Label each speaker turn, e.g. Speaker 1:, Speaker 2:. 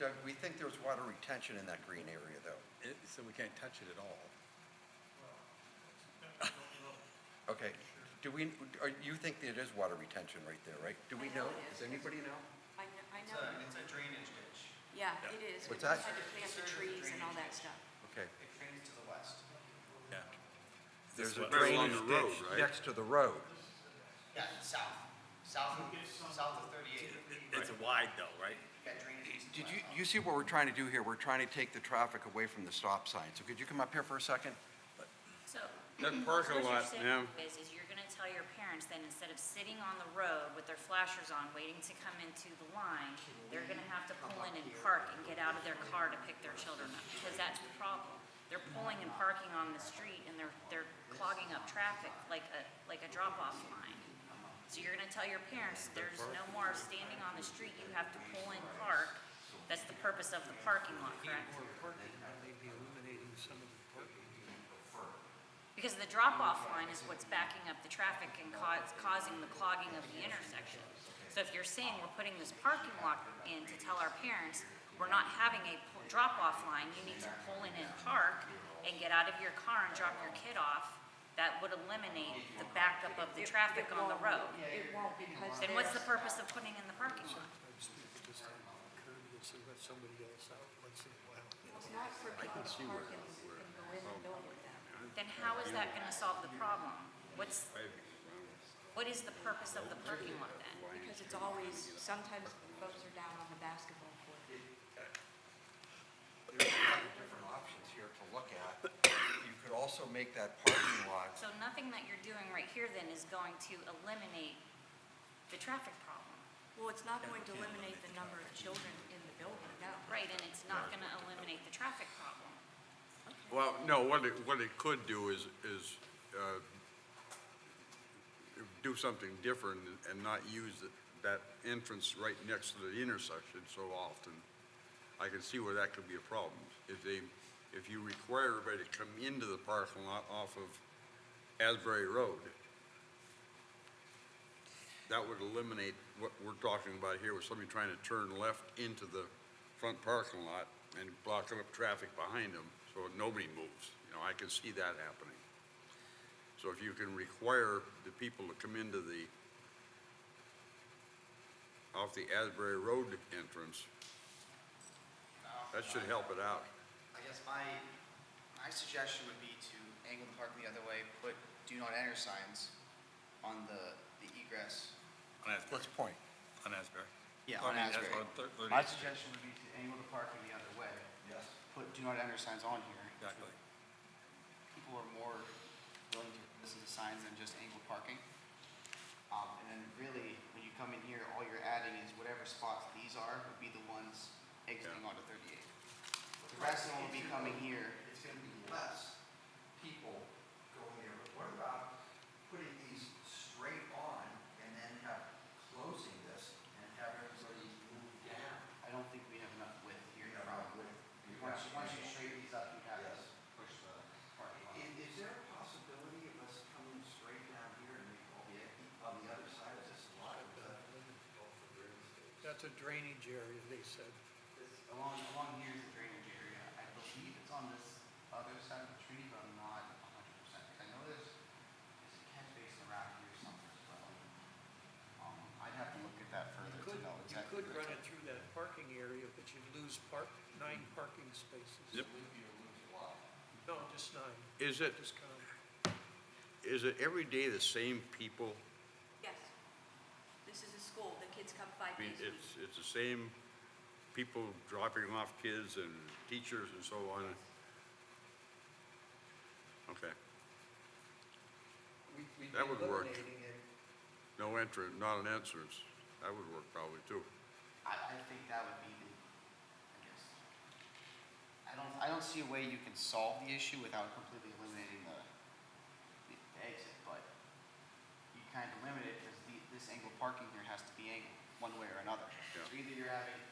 Speaker 1: Doug, we think there's water retention in that green area, though.
Speaker 2: It- So we can't touch it at all.
Speaker 1: Okay, do we, are, you think that it is water retention right there, right? Do we
Speaker 3: I know
Speaker 1: know?
Speaker 3: it is.
Speaker 1: Does anybody know?
Speaker 3: I know, I
Speaker 4: It's
Speaker 3: know,
Speaker 4: a, it's a drainage ditch.
Speaker 3: yeah, it is.
Speaker 1: What's
Speaker 3: We
Speaker 1: that?
Speaker 3: had to plant the trees and all that stuff.
Speaker 1: Okay.
Speaker 4: It drains to the west.
Speaker 2: Yeah.
Speaker 1: There's a
Speaker 2: what-
Speaker 5: Right along
Speaker 1: drainage
Speaker 5: the road,
Speaker 1: ditch
Speaker 5: right?
Speaker 1: next to the road.
Speaker 4: Yeah, south, south, of- south of thirty-eight.
Speaker 5: It's wide though, right?
Speaker 4: Got drainage.
Speaker 1: Did you, you see what we're trying to do here? We're trying to take the traffic away from the stop sign. So could you come up here for a second?
Speaker 6: So.
Speaker 5: That parking
Speaker 6: what you're
Speaker 5: lot,
Speaker 6: saying
Speaker 5: yeah.
Speaker 6: Is, is you're gonna tell your parents then, instead of sitting on the road with their flashers on, waiting to come into the line, they're gonna have to pull in and park and get out of their car to pick their children up, because that's the problem. They're pulling and parking on the street and they're, they're clogging up traffic like a, like a drop-off line. So you're gonna tell your parents, there's no more standing on the street, you have to pull and park. That's the purpose of the parking lot, correct? Because the drop-off line is what's backing up the traffic and cau- causing the clogging of the intersection. So if you're saying we're putting this parking lot in to tell our parents, we're not having a pu- drop-off line, you need to pull in and park and get out of your car and drop your kid off, that would eliminate the backup of the traffic on the road.
Speaker 3: It won't because
Speaker 6: Then what's the purpose of putting in the parking lot?
Speaker 7: Sometimes people just have a curb, you'll see what somebody else out once in a while.
Speaker 3: It's not for people to park and and go in and go with them.
Speaker 6: Then how is that gonna solve the problem? What's, what is the purpose of the parking lot then?
Speaker 3: Because it's always, sometimes folks are down on the basketball court.
Speaker 1: There's a lot of different options here to look at. You could also make that parking lot
Speaker 6: So nothing that you're doing right here then is going to eliminate the traffic problem?
Speaker 3: Well, it's not going to eliminate the number of children in the building, no.
Speaker 6: Right, and it's not gonna eliminate the traffic problem.
Speaker 5: Well, no, what it, what it could do is, is, uh, do something different and not use th- that entrance right next to the intersection so often. I can see where that could be a problem. If they, if you require everybody to come into the parking lot off of Asbury Road, that would eliminate what we're talking about here with somebody trying to turn left into the front parking lot and blocking up traffic behind them so nobody moves. You know, I can see that happening. So if you can require the people to come into the, off the Asbury Road entrance, that should help it out.
Speaker 4: I guess my, my suggestion would be to angle the parking the other way, put do not enter signs on the, the egress.
Speaker 2: On Asbury.
Speaker 1: Let's point.
Speaker 2: On Asbury.
Speaker 4: Yeah, on
Speaker 2: I mean, that's
Speaker 4: Asbury.
Speaker 2: on thir- thirty-
Speaker 4: My suggestion would be to angle the parking the other way.
Speaker 1: Yes.
Speaker 4: Put do not enter signs on here. which
Speaker 2: Exactly.
Speaker 4: would- People are more willing to listen to signs than just angled parking. Um, and then really, when you come in here, all you're adding is whatever spots these are would be the ones exiting onto thirty-eight. The rest of them will be coming here.
Speaker 1: it's gonna be less people going there, but what about putting these straight on and then have, closing this and have everybody move down?
Speaker 4: I don't think we have enough width here.
Speaker 1: You know, around with-
Speaker 4: Once, once you straighten these up, you have to
Speaker 1: Yes.
Speaker 4: push the parking lot.
Speaker 1: Is, is there a possibility of us coming straight down here and make all the, on the other side of this lot of the?
Speaker 7: That's a drainage area, they said.
Speaker 4: This- Along, along here is the drainage area. I believe it's on this other side of the tree, but I'm not a hundred percent. 'Cause I know there's, there's a catch basin around here somewhere as well. Um, I'd have to look at that
Speaker 7: You
Speaker 4: further to
Speaker 7: could,
Speaker 4: know
Speaker 7: you
Speaker 4: exactly.
Speaker 7: could
Speaker 4: where
Speaker 7: run
Speaker 4: it's
Speaker 7: it
Speaker 4: at.
Speaker 7: through that parking area, but you'd lose park, nine parking spaces.
Speaker 5: Yep.
Speaker 7: No, just nine,
Speaker 5: Is it,
Speaker 7: just kind of,
Speaker 5: is it every day the same people?
Speaker 3: Yes. This is a school, the kids come five
Speaker 5: I mean,
Speaker 3: days a week.
Speaker 5: it's, it's the same people dropping off kids and teachers and so on. Okay,
Speaker 7: we'd we'd be
Speaker 5: That would work.
Speaker 7: eliminating it.
Speaker 5: no entrance, not an entrance. That would work probably too.
Speaker 4: I, I think that would be the, I guess. I don't, I don't see a way you can solve the issue without completely eliminating the, the exit, but you kind of limit it because the, this angle parking here has to be angled, one way or another. So
Speaker 5: Yeah.
Speaker 4: either you're having